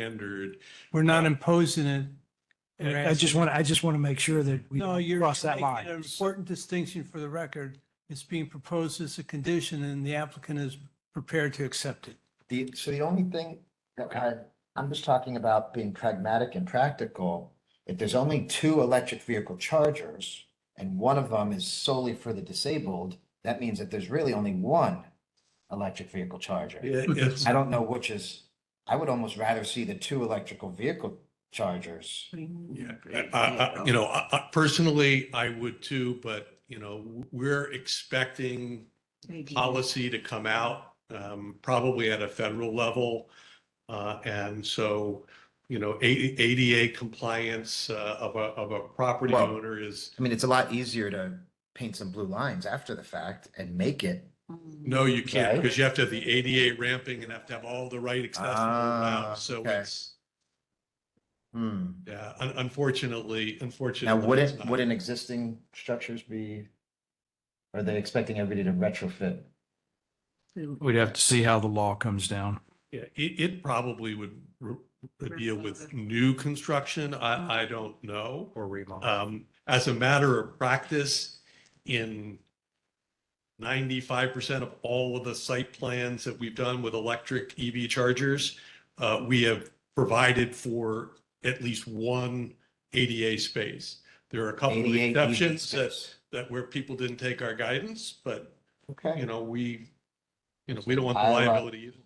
standard. We're not imposing it. We're I I just asking- want, I just want to make sure that we No, don't you're cross that making line. An important distinction for the record. It's being proposed as a condition and the applicant is prepared to accept it. The, so the only thing, okay, I'm just talking about being pragmatic and practical. If there's only two electric vehicle chargers and one of them is solely for the disabled, that means that there's really only one electric vehicle charger. I don't know which is, I would almost rather see the two electrical vehicle chargers. Yeah, I- I- I- you know, I- I- personally, I would too, but, you know, we're expecting policy to come out, um, probably at a federal level. Uh, and so, you know, A- ADA compliance, uh, of a, of a property Well- owner is, I mean, it's a lot easier to paint some blue lines after the fact and make it. Um, no, you can't, Right. because you have to have the ADA ramping and have to have all the right accessible Ah, routes. So okay. it's, Hmm. yeah, un- unfortunately, Now, unfortunately. it's wouldn't, not. wouldn't existing structures be, are they expecting everybody to retrofit? We'd have to see how the law comes down. Yeah, it, it probably would re- would deal with new construction. I, I don't know. Or remodel. Um, as a matter of practice, in ninety-five percent of all of the site plans that we've done with electric EV chargers, uh, we have provided for at least one ADA space. There are a couple of 88 EV exceptions that, E space. that where people didn't take our guidance, but, you Okay, know, we, you know, we don't want the I love- liability either.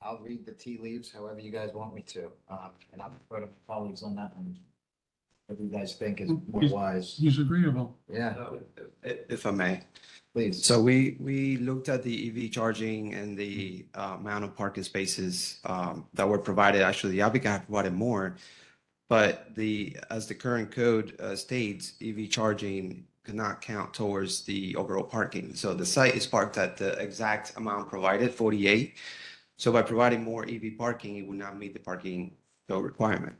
I'll read the tea leaves however you guys want me to, um, and I'll put to my colleagues on that one. Whatever you guys think is more wise. He's agreeable. Yeah, If if I may. please. So we, we looked at the EV charging and the uh, amount of parking spaces um, that were provided. Actually, the applicant had provided more. But the, as the current code uh, states, EV charging cannot count towards the overall parking. So the site is parked at the exact amount provided, 48. So by providing more EV parking, it would not meet the parking code requirement.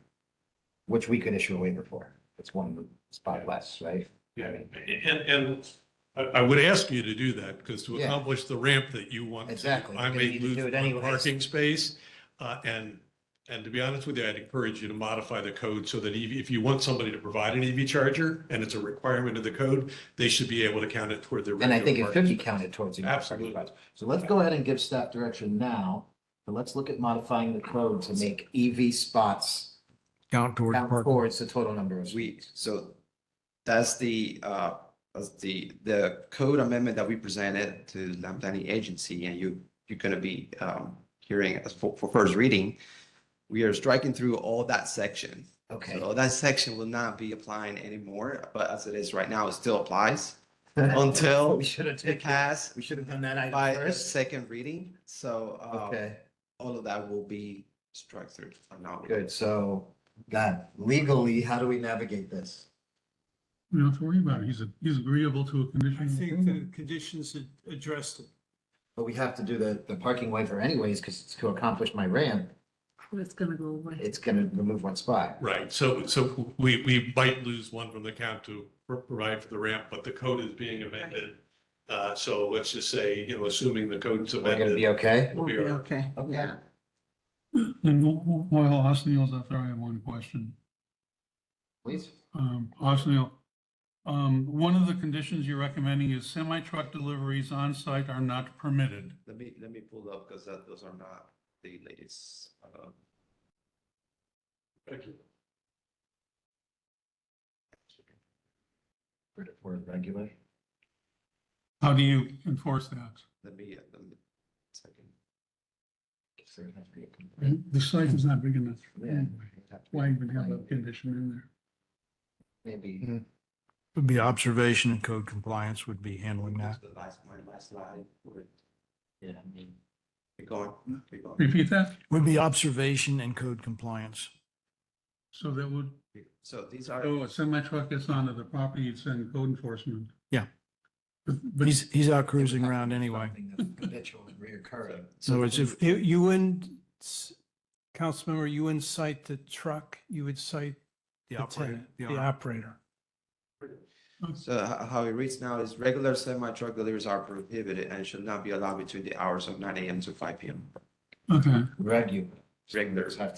Which we could issue a waiver for. It's one spot less, right? Yeah, and, and I, I would ask you to do that, because to Yeah. accomplish the ramp that you want. to, Exactly. I You're gonna may need to lose do it one anyways. parking space, uh, and, and to be honest with you, I'd encourage you to modify the code so that EV, if you want somebody to provide an EV charger, and it's a requirement of the code, they should be able to count it toward their. And I think regular it could be parking. counted towards. the Absolutely. parking spots. So let's go ahead and give staff direction now, but let's look at modifying the code to make EV spots Count towards count park. towards the total number of We, suites. so that's the, uh, that's the, the code amendment that we presented to the Lamp Planning Agency, and you, you're gonna be, um, hearing us for, for first reading. We are striking through all that section. Okay. So that section will not be applying anymore, but as it is right now, it still applies until We should have it taken, passed we should have done that by item a first. second reading. So, uh, Okay, all of that will be struck through from now. on. good. So, God, legally, how do we navigate this? You don't have to worry about it. He's, a- he's agreeable to a I conditional think the approval. conditions ad- addressed it. But we have to do the, the parking waiver anyways, because it's to accomplish my ramp. It's gonna go away. It's gonna remove one spot. Right, so, so we, we might lose one from the count to pro- provide for the ramp, but the code is being amended. Uh, so let's just say, you know, assuming the code's We're gonna amended. be okay? We'll we be are- okay. Okay. And wh- wh- while Osneal's up there, I have one question. Please. Um, Osneal, um, one of the conditions you're recommending is semi-truck deliveries on site are not permitted. Let me, let me pull up, because that, those are not the latest, uh, We're regular. How do you enforce that? Let me, uh, let me, second. The site is not big enough. Yeah. Hmm. Why even have a condition in there? Maybe. Hmm. Would be observation and code compliance would be handling that. The last, my last slide, we're- Yeah, I mean, keep going, keep going. Repeat that? Would be observation and code compliance. So that would, So these are, oh, a semi-truck gets onto the property, it's in code enforcement. Yeah. But, but He's, he's out cruising around anyway. something that's Habitual and reoccurring. So it's if, You, you wouldn't, s- Councilmember, you wouldn't cite the truck, you would cite the the operator, tenant, the operator. so h- how it reads now is regular semi-truck deliveries are prohibited and should not be allowed between the hours of nine AM to five PM. Okay, Regular. Regular.